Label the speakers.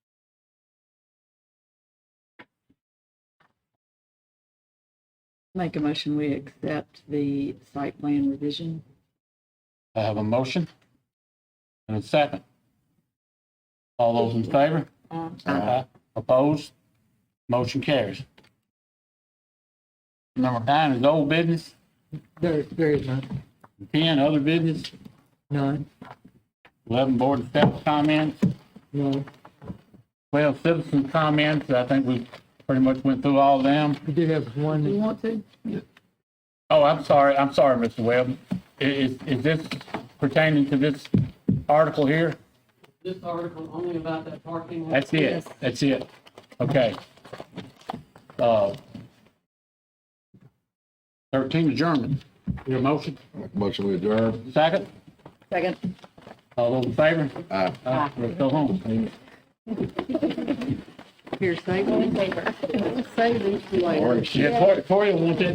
Speaker 1: Make a motion, we accept the site plan revision.
Speaker 2: I have a motion and a second. All those in favor?
Speaker 3: Uh,
Speaker 2: Aye. Opposed? Motion carries. Number nine is old business,
Speaker 3: There, there is none.
Speaker 2: ten, other business,
Speaker 3: None,
Speaker 2: eleven, board and staff comments,
Speaker 3: none.
Speaker 2: twelve, citizen comments. I think we pretty much went through all of them.
Speaker 3: We did have
Speaker 1: Do you
Speaker 3: one,
Speaker 1: want to?
Speaker 2: Oh, I'm sorry, I'm sorry, Mr. Webb. I- Is, is this pertaining to this article here?
Speaker 4: this article only about that parking lot.
Speaker 2: That's it,
Speaker 1: Yes.
Speaker 2: that's it. Okay. Uh, Thirteen adjournment. Your motion,
Speaker 5: Motion we adjourn.
Speaker 2: second?
Speaker 1: Second.
Speaker 2: All those in favor?
Speaker 5: Aye.
Speaker 2: Uh, we'll Go home.
Speaker 1: Here, say one. Say these two later.
Speaker 5: Orange.
Speaker 2: Yeah, Tori- Tori will want that